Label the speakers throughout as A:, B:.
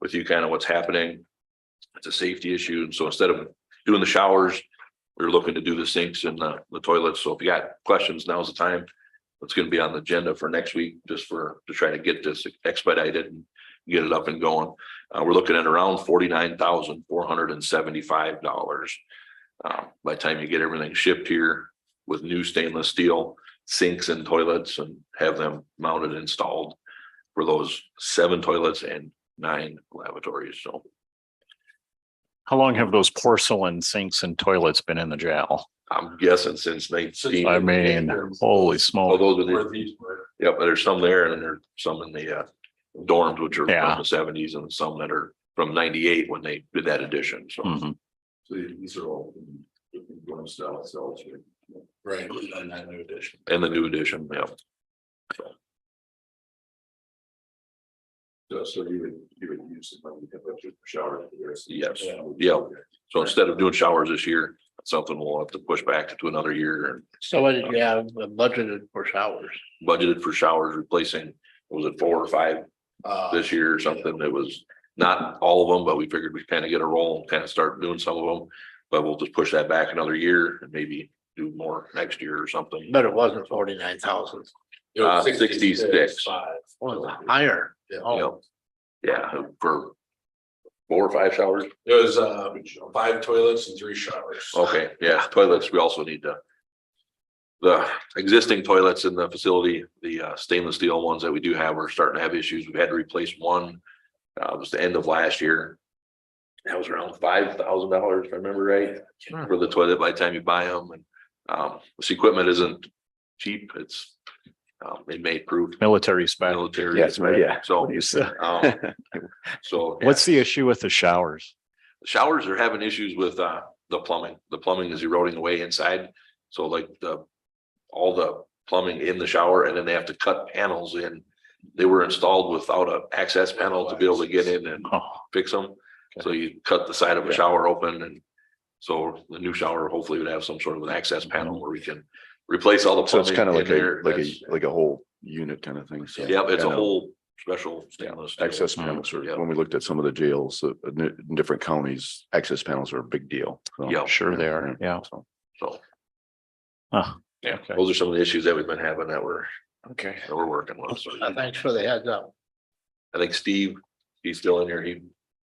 A: with you kind of what's happening. It's a safety issue. And so instead of doing the showers, we are looking to do the sinks and the, the toilets. So if you got questions, now's the time. It's gonna be on the agenda for next week, just for, to try to get this expedited and get it up and going. Uh, we're looking at around forty-nine thousand, four hundred and seventy-five dollars. Um, by the time you get everything shipped here with new stainless steel sinks and toilets and have them mounted, and installed for those seven toilets and nine lavatories. So
B: How long have those porcelain sinks and toilets been in the jail?
A: I'm guessing since nineteen.
B: I mean, holy
A: Oh,
B: smokes.
A: those are the, yeah, but there's some there and there's some in the uh, dorms, which are
B: Yeah.
A: from the seventies and some that are from ninety-eight when they did that addition. So.
B: Mhm.
A: So these are all. Dorm style cells.
C: Right, and that new addition.
A: And the new addition, yeah.
C: So, so you would, you would use the money to put your shower.
A: Yes. Yeah. So instead of doing showers this year, that's something we'll have to push back to another year and
C: So what did you have budgeted for showers?
A: budgeted for showers replacing, was it four or five
D: uh,
A: this year or something that was not all of them, but we figured we'd kind of get a roll and kind of start doing some of them. But we'll just push that back another year and maybe do more next year or something.
D: But it wasn't forty-nine thousand,
A: Uh, 66.
D: was higher. Oh.
A: You know? Yeah, for four or five showers.
C: It was, uh, five toilets and three showers.
E: Oh.
A: Okay, yeah, toilets, we also need to. The existing toilets in the facility, the uh, stainless steel ones that we do have are starting to have issues. We've had to replace one. Uh, it was the end of last year. That was around five thousand dollars, if I remember right,
D: Hmm.
A: for the toilet by the time you buy them and, um, this equipment isn't cheap, it's. Um, inmate proof,
B: Military spec.
A: military.
B: Yes, right, yeah.
A: So, um, so.
B: What's the issue with the showers?
A: showers are having issues with uh the plumbing. The plumbing is eroding away inside. So like the. All the plumbing in the shower and then they have to cut panels in. They were installed without a access panel to be able to get in and
B: Oh,
A: fix them. So you cut the side of a shower open and. So the new shower hopefully would have some sort of an access panel where we can replace all the
F: So it's
A: plumbing.
F: kind of
A: in
F: like a,
A: there.
F: like a,
A: That's-
F: like a whole unit kind of thing. So.
A: Yep, it's a
F: kind of
A: whole special stainless. steel.
F: Access
B: Mm.
F: panels are,
A: Yep.
F: when we looked at some of the jails, uh, in in different counties, access panels are a big deal. So,
A: Yep.
B: Sure they are, yeah.
F: so.
A: So.
B: Huh.
A: Yeah,
B: Okay.
A: those are some of the issues that we've been having that we're,
B: Okay.
A: that we're working with. So-
D: Uh, Thanks for the heads up.
A: I think Steve, he's still in here, he.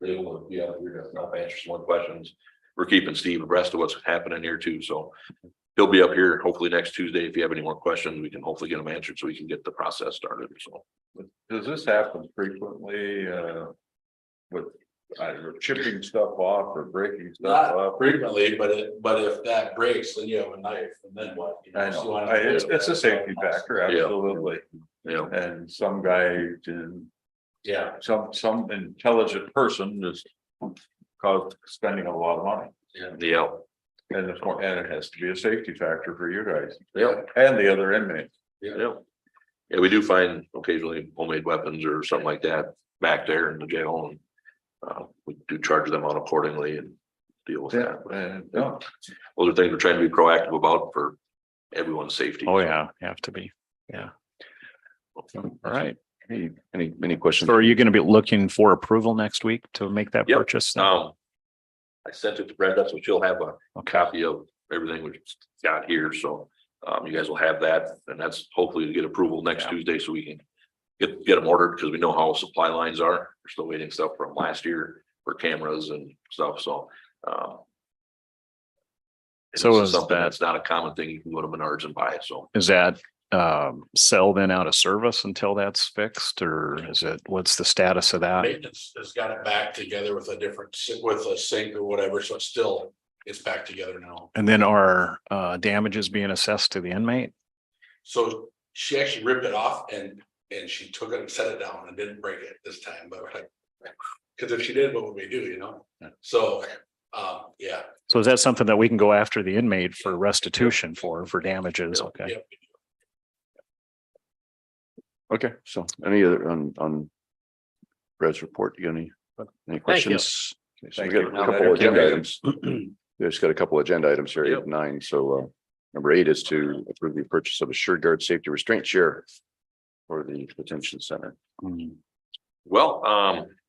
A: Really will be out here to help answer some more questions. We're keeping Steve abreast of what's happening here too, so. He'll be up here hopefully next Tuesday. If you have any more questions, we can hopefully get them answered so we can get the process started, so.
C: Does this happen frequently, uh, with either chipping stuff off or breaking stuff up? Frequently, but it, but if that breaks, then you have a knife and then what? I know, I- it's, it's a safety factor,
A: Yeah.
C: absolutely.
A: You know,
C: And some guy did
D: Yeah.
C: some, some intelligent person is caused spending a lot of money.
A: yeah,
C: And it's more, and it has to be a safety factor for you guys
A: yeah,
C: and the other inmates.
A: yeah. Yeah, we do find occasionally homemade weapons or something like that back there in the jail and. Uh, we do charge them out accordingly and deal with that.
C: And, no,
A: Those are things we're trying to be proactive about for everyone's safety.
B: Oh, yeah, you have to be. Yeah. All right.
F: Hey, any, any questions?
B: So are you going to be looking for approval next week to make that
A: Yep.
B: purchase?
A: Um. I sent it to Brenda, so she'll have a
B: Okay.
A: copy of everything we've got here, so. Um, you guys will have that, and that's hopefully to get approval next
B: Yeah.
A: Tuesday, so we can. Get, get them ordered, because we know how supply lines are, we're still waiting stuff from last year for cameras and stuff, so, um.
B: So
A: this
B: is
A: something
B: that-
A: That's not a common thing, you can go to Menards and buy, so.
B: Is that um cell then out of service until that's fixed or is it, what's the status of
C: Uh,
B: that?
E: Maintenance has got it back together with a different, si- with a sink or whatever, so it's still, it's back together now.
B: And then are uh damages being assessed to the inmate?
E: So she actually ripped it off and, and she took it and set it down and didn't break it this time, but like. Cause if she did, what would we do, you know? So, um, yeah.
B: So is that something that we can go after the inmate for restitution for, for damages? Okay.
E: Yep.
F: Okay, so any other on, on Brad's report, you got any, any questions? Okay, so We
C: Thank
F: got
C: you.
F: a couple agenda items. We just got a couple agenda items here, eight
A: Yep.
F: and nine, so uh, number eight is to approve the purchase of a sure guard safety restraint chair for the detention center.
B: Mm.
A: Well, um,